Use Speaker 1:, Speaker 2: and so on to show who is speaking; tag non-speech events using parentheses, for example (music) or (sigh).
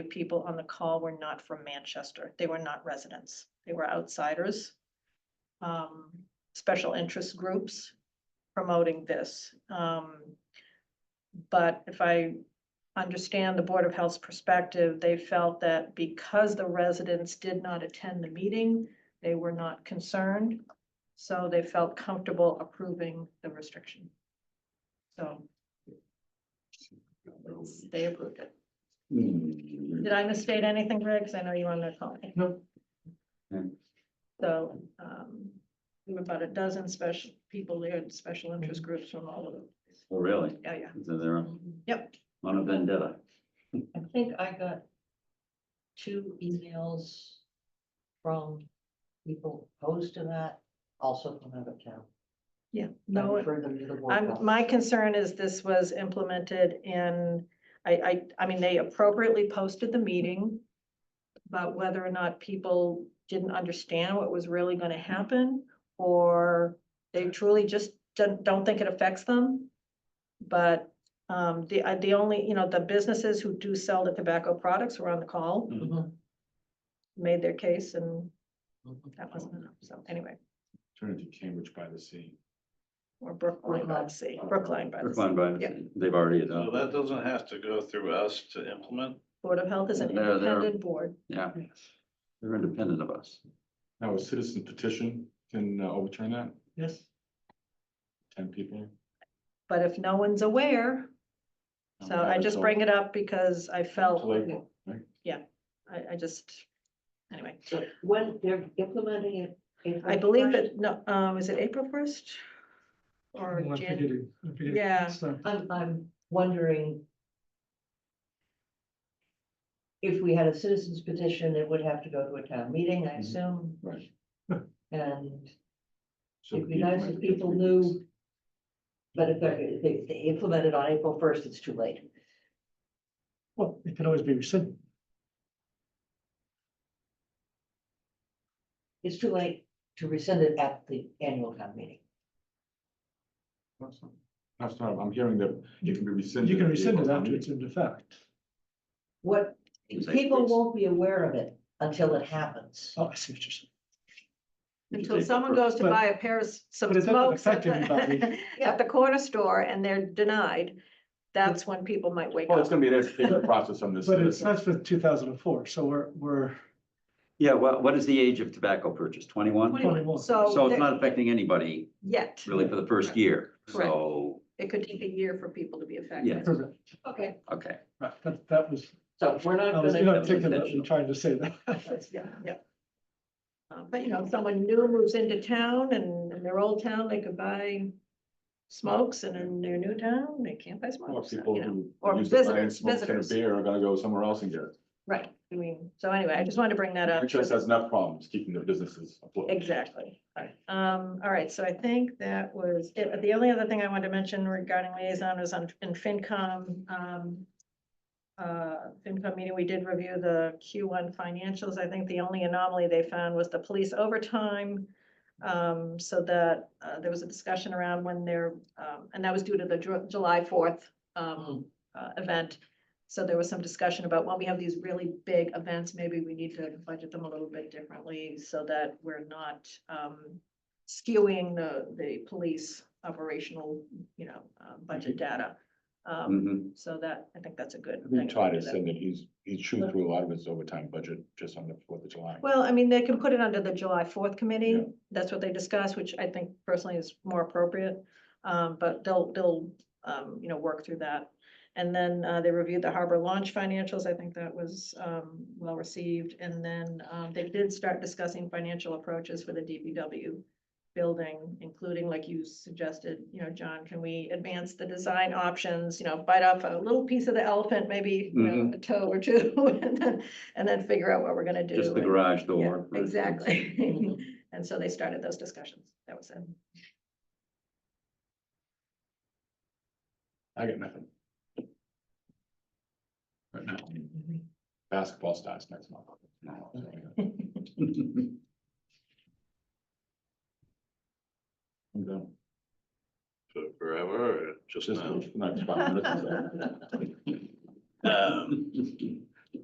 Speaker 1: people on the call were not from Manchester. They were not residents. They were outsiders. Um, special interest groups promoting this. Um, but if I understand the Board of Health's perspective, they felt that because the residents did not attend the meeting, they were not concerned. So they felt comfortable approving the restriction. So they approved it.
Speaker 2: Mm-hmm.
Speaker 1: Did I misstate anything, Greg? 'Cause I know you wanted to call me.
Speaker 2: No.
Speaker 1: So, um, there were about a dozen special people there, and special interest groups from all over.
Speaker 2: Oh, really?
Speaker 1: Yeah, yeah.
Speaker 2: So they're on
Speaker 1: Yep,
Speaker 2: on a vendetta.
Speaker 3: I think I got two emails from people opposed to that, also from out of town.
Speaker 1: yeah. No,
Speaker 3: I referred them to the board
Speaker 1: I'm,
Speaker 3: docs.
Speaker 1: my concern is this was implemented in, I, I, I mean, they appropriately posted the meeting. But whether or not people didn't understand what was really gonna happen, or they truly just don't, don't think it affects them. But, um, the, uh, the only, you know, the businesses who do sell the tobacco products were on the call,
Speaker 3: Mhm,
Speaker 1: made their case, and
Speaker 3: mhm.
Speaker 1: that wasn't enough, so anyway,
Speaker 4: Turn into Cambridge by the Sea.
Speaker 1: or Brookline by the sea, Brookline by the sea.
Speaker 2: Brookline by,
Speaker 1: Yeah.
Speaker 2: they've already
Speaker 5: So
Speaker 2: adopted.
Speaker 5: that doesn't have to go through us to implement?
Speaker 1: Board of Health is an
Speaker 2: They're- they're-
Speaker 1: independent board.
Speaker 2: Yeah. They're independent of us.
Speaker 4: Now, a citizen petition can uh, overturn that,
Speaker 3: Yes.
Speaker 4: ten people.
Speaker 1: But if no one's aware, so I just bring it up because I felt,
Speaker 4: Till April, right?
Speaker 1: I, I just, anyway.
Speaker 3: So when they're implementing it. April
Speaker 1: I believe
Speaker 3: 1st,
Speaker 1: that, no, um, is it April first? Or
Speaker 6: Well, I
Speaker 1: Jan,
Speaker 6: figured it- I figured it-
Speaker 1: yeah,
Speaker 6: so,
Speaker 3: I'm, I'm wondering. If we had a citizens petition, it would have to go to a town meeting, I
Speaker 4: Mhm.
Speaker 3: assume,
Speaker 4: Right.
Speaker 3: and
Speaker 4: So
Speaker 3: it'd be
Speaker 4: you
Speaker 3: nice
Speaker 4: might
Speaker 3: if
Speaker 4: be
Speaker 3: people
Speaker 4: three weeks.
Speaker 3: knew. But if they're, if they- they implement it on April first, it's too late.
Speaker 6: Well, it can always be rescinded.
Speaker 3: It's too late to rescind it at the annual town meeting.
Speaker 4: That's not- That's not, I'm hearing that you can be rescinded.
Speaker 6: You can
Speaker 4: at the
Speaker 6: rescind it
Speaker 4: April
Speaker 6: after
Speaker 4: meeting.
Speaker 6: it's in effect.
Speaker 3: What,
Speaker 2: It's like
Speaker 3: people
Speaker 2: this.
Speaker 3: won't be aware of it until it happens.
Speaker 6: Oh, I see what you're saying.
Speaker 1: until someone goes to
Speaker 6: But-
Speaker 1: buy a pair of s- some
Speaker 6: but it doesn't
Speaker 1: smokes at
Speaker 6: affect everybody.
Speaker 1: the, (laughs) at the corner store and they're denied, that's when people might wake
Speaker 4: Well, it's
Speaker 1: up.
Speaker 4: gonna be an educational process on this.
Speaker 6: But it's,
Speaker 4: citizen.
Speaker 6: that's for two thousand and four, so we're, we're,
Speaker 2: Yeah, what, what is the age of tobacco purchase? Twenty-one?
Speaker 6: 21.
Speaker 2: So
Speaker 1: So,
Speaker 2: it's
Speaker 1: there-
Speaker 2: not affecting anybody
Speaker 1: yet,
Speaker 2: really for the first year.
Speaker 1: Oh, Correct.
Speaker 2: So,
Speaker 1: it could take a year for people to be
Speaker 2: Yeah.
Speaker 1: affected.
Speaker 6: perfect.
Speaker 3: Okay.
Speaker 2: okay.
Speaker 6: Right, that, that was,
Speaker 3: So we're not
Speaker 6: I was
Speaker 3: gonna,
Speaker 6: inarticulate in trying to say that. (laughs)
Speaker 1: Yeah, yeah. Uh, But you know, if someone new moves into town and in their old town, they could buy smokes and in their new town, they can't buy
Speaker 4: Or
Speaker 1: smokes, so,
Speaker 4: people
Speaker 1: you know,
Speaker 4: who.
Speaker 1: or
Speaker 4: use the money and
Speaker 1: visitors,
Speaker 4: smoke ten
Speaker 1: visitors.
Speaker 4: Beer are gonna go somewhere else and get it.
Speaker 1: right, I mean, so anyway, I just wanted to bring that up.
Speaker 4: Which just has enough problems keeping their businesses afloat.
Speaker 1: Exactly, alright, um, alright, so I think that was, it. the only other thing I wanted to mention regarding liaison was on, in FinCom, um. Uh, FinCom meeting, we did review the Q one financials, I think the only anomaly they found was the police overtime. Um, so that, uh, there was a discussion around when they're, um, and that was due to the Ju- July fourth, um, uh, event. So there was some discussion about when we have these really big events, maybe we need to budget them a little bit differently so that we're not um skewing the the police operational, you know, uh, budget
Speaker 4: Mm-hmm.
Speaker 1: data. Um,
Speaker 2: Mhm.
Speaker 1: so that, I think that's a good.
Speaker 4: We
Speaker 1: thing
Speaker 4: Mm-hmm. tried to
Speaker 1: do that.
Speaker 4: send it, he's, he's chewed through a lot of his overtime budget just on the Fourth of July.
Speaker 1: Well, I mean, they can put it under the July fourth committee.
Speaker 4: Yeah.
Speaker 1: That's what they discussed, which I think personally is more appropriate. Um, but they'll, they'll, um, you know, work through that. And then, uh, they reviewed the harbor launch financials. I think that was, um, well received. And then, um, they did start discussing financial approaches for the DPW building, including like you suggested, you know, John, can we advance the design options, you know, bite off a little piece of the elephant, maybe, you know,
Speaker 2: Mhm.
Speaker 1: a toe or two, (laughs) and then, and then figure out what we're gonna do.
Speaker 2: Just the
Speaker 1: and-
Speaker 2: garage
Speaker 1: yeah,
Speaker 2: door. for instance.
Speaker 1: Exactly. (laughs) And so they started those discussions. That was it.
Speaker 4: I got nothing. Right now, basketball starts next
Speaker 5: (laughs)
Speaker 4: month. I'm done.
Speaker 5: For Forever or just
Speaker 4: Just
Speaker 5: now?
Speaker 4: the next five minutes.
Speaker 5: Um,